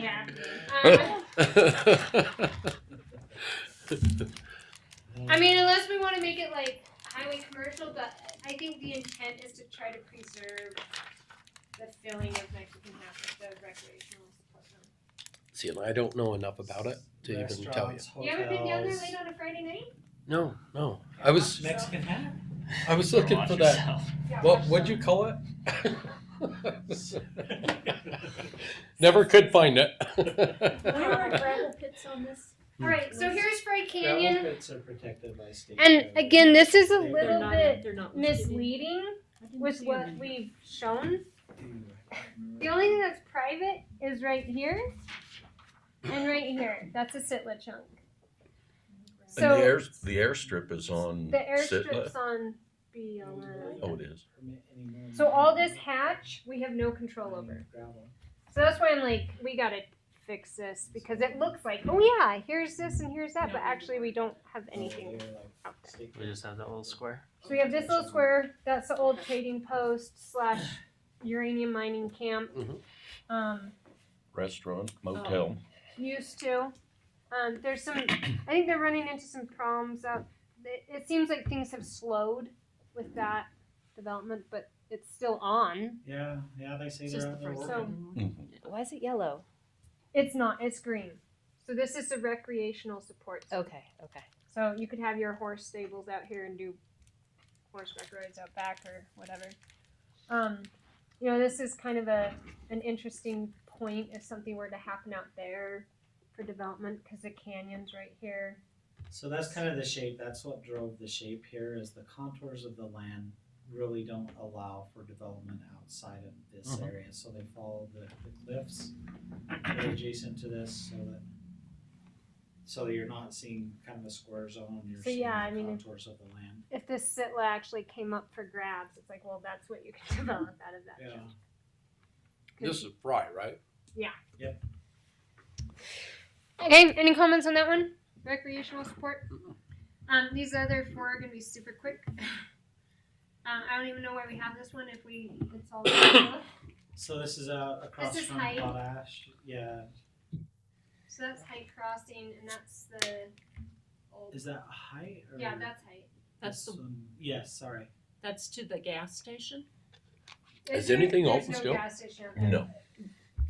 Um, I mean, unless we want to make it like highway commercial, but I think the intent is to try to preserve the filling of Mexican half with the recreational support zone. See, and I don't know enough about it to even tell you. Restaurants, You ever been down there hotels. late on a Friday night? No, no. I was Mexican hat? I was looking Watch for that. yourself. Yeah, What watch what'd them. you call it? Never could find it. There were gravel pits on this. All right, so here's Fry Canyon, Gravel pits are protected by state. and code. again, this is a They're They're little not- bit they're not listed in- misleading I didn't with see what them in- we've shown. The only thing that's private is right here and right here. That's a sitla chunk. And the So air, the airstrip is on the Sitla. airstrip's on BLM. Oh, it is. Permit any more So all this than hatch, we have no control over. gravel. So that's why I'm like, we gotta fix this because it looks like, oh yeah, here's this and here's that, but actually we don't have Oh, anything they're like out there. state We just have that little square. So we have this little square, that's the old trading post slash uranium mining camp. Mhm. Um, Restaurant, Oh. motel. used to. Um, there's some. I think they're running into some problems. Up. It, it seems like things have slowed with that development, but it's still on. Yeah, yeah, they say It's they're just the out there first So- working. Mhm. Why is it yellow? It's not. It's green. So this is a recreational support. zone. Okay, okay. So you could have your horse stables out here and do horseback rides out back or whatever. Um, you know, this is kind of a an interesting point if something were to happen out there for development because the canyon's right here. So that's kind of the shape, that's what drove the shape here, is the contours of the land really don't allow for development outside of this Mhm. area, so they follow the, the cliffs that are adjacent to this, so that so you're not seeing kind of a square zone, you're So, seeing yeah, I the mean, if- contours of the land, if this sitla actually came up for grabs, it's like, well, that's what you can develop out of that. yeah. chunk. This is Fry, right? Okay, any comments on that one? Recreational support? Um, these other four are gonna be super quick. Um, I don't even know why we have this one if we, it's all. So this is uh, across This is from height. Potash, yeah, So that's height crossing and that's the old, is that height or? yeah, that's height. That's this the, one? Yes, sorry, that's to the gas station? There's Is no- anything there's open no still? gas station out there. No,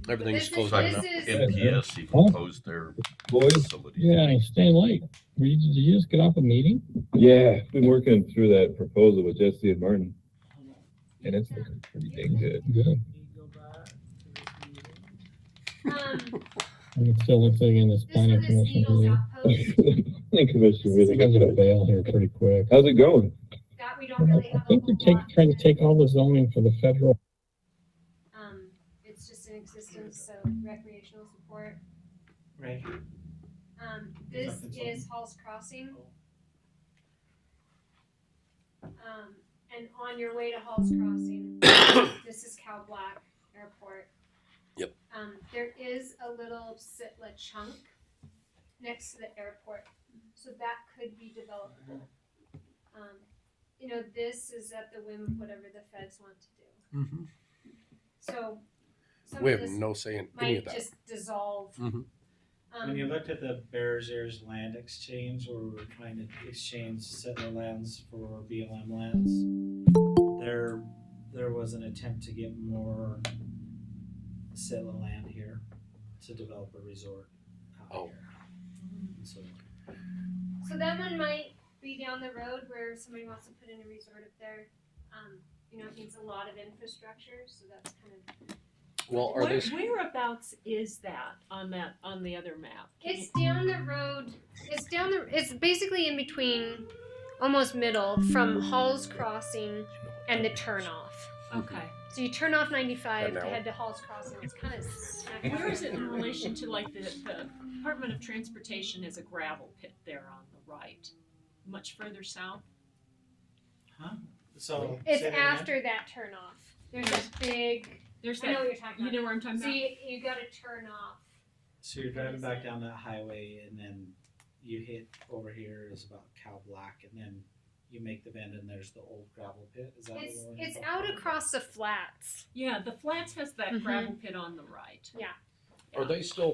Everything's This is- closed right Sorry, now. no. This is, NPS even closed their Boys, facility. Yeah, staying late. Were you, did you just get off a meeting? yeah, been working through that proposal with Jesse and Martin, and it's looking pretty dang good. Good. Can you go back to this meeting? um, And It still looks like in this this one planning is commission Needles meeting. Outpost. Thank you, Mr. I Really. think I'm gonna bail here pretty quick. How's it going? That we don't really I have a think they're whole lot taking, trying to take all the zoning for the federal. Um, it's just in existence, so recreational support. Right, Um, this Is that consultant? is Hall's Crossing. Um, and on your way to Hall's Crossing, this is Cow Black Airport. Yep. Um, there is a little sitla chunk next to the airport, so that could be developable. Um, you know, this is at the whim of whatever the feds want to do. So, some We of have this no say in any might of that. just dissolve. Mhm. When you Um, looked at the Bears Ears land exchange, where we were trying to exchange settler lands for BLM lands, there, there was an attempt to get more settler land here to develop a resort out Oh. here. So, so that one might be down the road where somebody wants to put in a resort up there. Um, you know, it needs a lot of infrastructure, so that's kind of, Well, are Where- these Whereabouts is that on that, on the other map? Can it's down the road, it's down the, it's basically in between, almost middle from Hall's Crossing and the turnoff. you- Okay. So you turn off ninety-five to That now? head to Hall's Crossing, it's kind of smack. Where is it in relation to like the, the Department of Transportation has a gravel pit there on the right? Much further south? huh? So. It's say that again? after that turnoff. There's this big, There's I know that, what you're talking you about. know where I'm talking So about? you, you gotta turn off. So you're driving back down that highway and then you hit over here is about Cow Black and then you make the bend and there's the old gravel pit, is that what It's, we're it's talking out about? across the flats. Yeah, the flats has that Mhm. gravel pit on the right. are they still